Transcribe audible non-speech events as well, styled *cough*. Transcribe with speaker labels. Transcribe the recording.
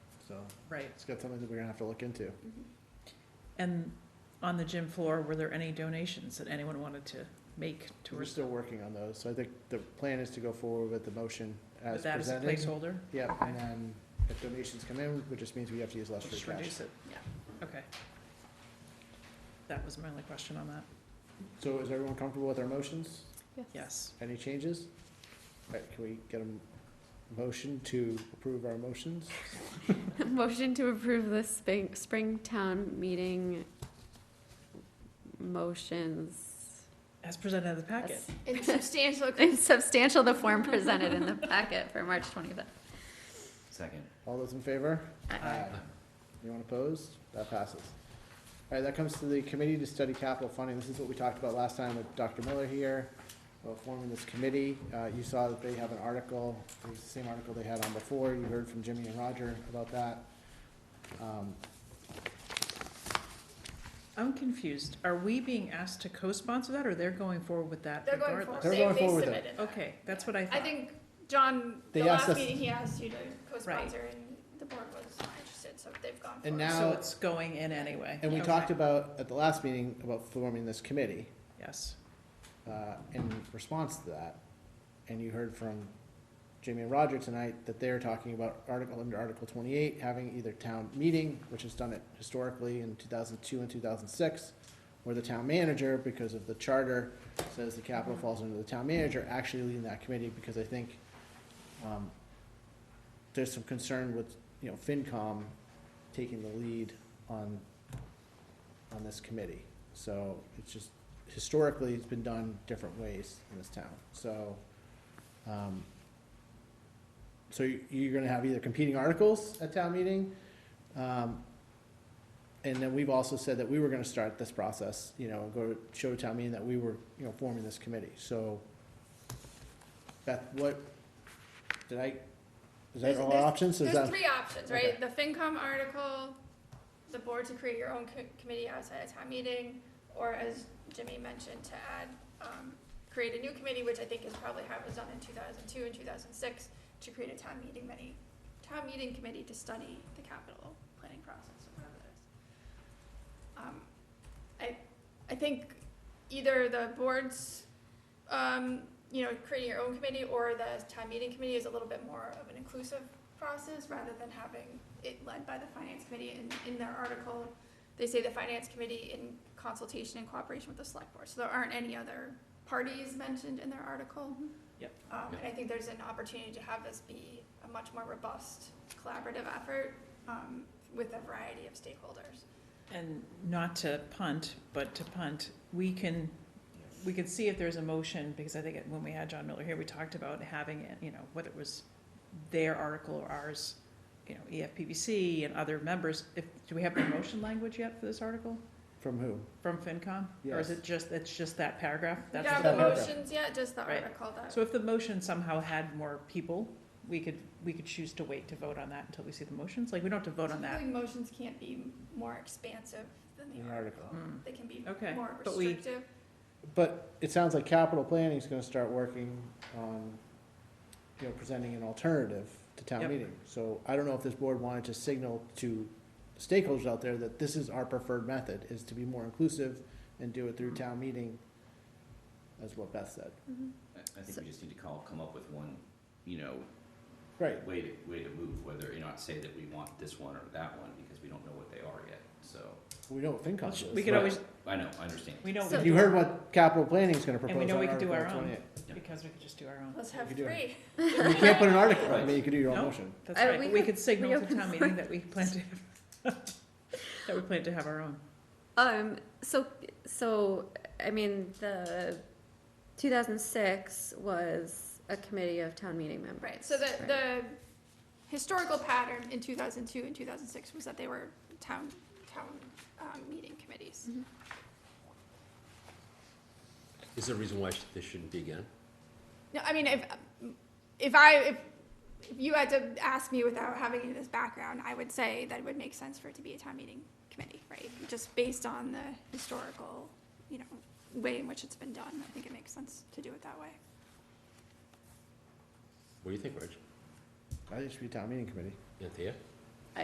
Speaker 1: so
Speaker 2: right.
Speaker 1: it's got something that we're gonna have to look into.
Speaker 3: Mm-hmm.
Speaker 2: And on the gym floor, were there any donations that anyone wanted to make
Speaker 1: We're
Speaker 2: towards
Speaker 1: still working on those, so I think the plan is to go forward with the motion as
Speaker 2: with that as a
Speaker 1: presented.
Speaker 2: placeholder?
Speaker 1: Yeah, and then if donations come in, which just means we have to use less free
Speaker 2: Just
Speaker 1: cash.
Speaker 2: reduce it, yeah, okay. That was my only question on that,
Speaker 1: So is everyone comfortable with our motions?
Speaker 2: yes.
Speaker 1: Any changes? All right, can we get a m- motion to approve our motions?
Speaker 3: *laughs* Motion to approve the spring, spring town meeting motions.
Speaker 2: As presented in the packet,
Speaker 3: Yes.
Speaker 4: It's substantial.
Speaker 3: *laughs* In substantial the form presented in the packet for March twenty-fifth.
Speaker 5: Second.
Speaker 1: All those in favor?
Speaker 3: Aye.
Speaker 2: Uh,
Speaker 1: Anyone opposed? That passes. All right, that comes to the committee to study capital funding. This is what we talked about last time with Dr. Miller here, about forming this committee. Uh, you saw that they have an article, the same article they had on before. You heard from Jimmy and Roger about that. Um,
Speaker 2: I'm confused, are we being asked to co-sponsor that, or they're going forward with that
Speaker 4: They're going forward.
Speaker 2: regardless?
Speaker 1: They're
Speaker 4: Oh, They-
Speaker 1: going
Speaker 4: they
Speaker 1: forward with
Speaker 4: submitted
Speaker 1: it.
Speaker 4: that.
Speaker 2: Okay, that's what I thought.
Speaker 4: I think John,
Speaker 1: They
Speaker 4: the
Speaker 1: asked
Speaker 4: last
Speaker 1: us-
Speaker 4: meeting, he asked you to co-sponsor and the board was not interested, so they've gone for it.
Speaker 1: And now-
Speaker 2: So it's going in anyway?
Speaker 1: And we
Speaker 2: Okay.
Speaker 1: talked about, at the last meeting, about forming this committee,
Speaker 2: Yes,
Speaker 1: uh, in response to that. And you heard from Jimmy and Roger tonight that they're talking about article, under Article twenty-eight, having either town meeting, which has done it historically in two thousand two and two thousand six, where the town manager, because of the charter, says the capital falls under the town manager, actually leading that committee, because I think, um, there's some concern with, you know, FinCom taking the lead on, on this committee. So it's just, historically, it's been done different ways in this town, so, um, so you- you're gonna have either competing articles at town meeting, um, and then we've also said that we were gonna start this process, you know, go to, show to town meeting that we were, you know, forming this committee, so. Beth, what, did I, is that
Speaker 4: There's-
Speaker 1: all our
Speaker 4: there's-
Speaker 1: options, is
Speaker 4: There's
Speaker 1: that,
Speaker 4: three options, right? The FinCom article, the board to create your own co- committee outside of town meeting, or as Jimmy mentioned, to add, um, create a new committee, which I think is probably how it was done in two thousand two and two thousand six, to create a town meeting many, town meeting committee to study the capital planning process or whatever that is. Um, I, I think either the board's, um, you know, creating your own committee or the town meeting committee is a little bit more of an inclusive process rather than having it led by the finance committee. And in their article, they say the finance committee in consultation and cooperation with the select board. So there aren't any other parties mentioned in their article.
Speaker 2: Yep.
Speaker 4: Um, and I think there's an opportunity to have this be a much more robust collaborative effort, um, with a variety of stakeholders.
Speaker 2: and not to punt, but to punt, we can, we can see if there's a motion, because I think it- when we had John Miller here, we talked about having, it, you know, whether it was their article or ours, you know, E EFPBC and other members, if, do we have the motion language yet for this article
Speaker 1: from who?
Speaker 2: from FinCom? Or
Speaker 1: Yes.
Speaker 2: is it just, it's just that paragraph?
Speaker 4: We
Speaker 2: That's
Speaker 4: don't have
Speaker 1: the
Speaker 4: the
Speaker 1: paragraph.
Speaker 4: motions yet, just the
Speaker 2: Right.
Speaker 4: article that.
Speaker 2: So if the motion somehow had more people, we could, we could choose to wait to vote on that until we see the motions, like, we don't have to vote on that.
Speaker 4: Typically, motions can't be more expansive than
Speaker 1: An
Speaker 4: the
Speaker 1: article.
Speaker 4: article.
Speaker 2: Mm.
Speaker 4: They can be
Speaker 2: Okay,
Speaker 4: more
Speaker 2: but we-
Speaker 4: restrictive.
Speaker 1: But it sounds like capital planning is gonna start working on, you know, presenting an alternative to town
Speaker 2: Yep.
Speaker 1: meeting. So I don't know if this board wanted to signal to stakeholders out there that this is our preferred method, is to be more inclusive and do it through town meeting, as what Beth said.
Speaker 2: Mm-hmm.
Speaker 5: I I think we just need to call, come up with one, you know,
Speaker 1: Right,
Speaker 5: way to, way to move, whether, you know, not say that we want this one or that one, because we don't know what they are yet, so.
Speaker 1: we know what FinCom is.
Speaker 2: We could always,
Speaker 5: I know, I understand.
Speaker 2: we know, we
Speaker 3: So-
Speaker 1: You heard what capital planning is gonna
Speaker 2: we
Speaker 1: propose
Speaker 2: know
Speaker 1: on
Speaker 2: we could do
Speaker 1: Article
Speaker 2: our own.
Speaker 1: 28.
Speaker 2: Because we could just do our own.
Speaker 4: Let's have
Speaker 1: could do it.
Speaker 4: three.
Speaker 1: You can't put an article, I
Speaker 5: Right.
Speaker 1: mean, you could do your own
Speaker 2: No.
Speaker 1: motion.
Speaker 2: That's
Speaker 3: Uh,
Speaker 2: right,
Speaker 3: we
Speaker 2: but we
Speaker 3: could
Speaker 2: could signal to
Speaker 3: reopen
Speaker 2: town meeting that we plan to, *laughs* that we plan to have our own.
Speaker 3: Um, so, so, I mean, the two thousand six was a committee of town meeting members.
Speaker 4: Right, so the, the historical pattern in two thousand two and two thousand six was that they were town, town, um, meeting committees.
Speaker 6: Is there a reason why sh- this shouldn't be again?
Speaker 4: No, I mean, if, if I, if if you had to ask me without having any of this background, I would say that it would make sense for it to be a town meeting committee, right? Just based on the historical, you know, way in which it's been done, I think it makes sense to do it that way.
Speaker 6: What do you think, Rich?
Speaker 1: I think it should be town meeting committee.
Speaker 6: Anthea?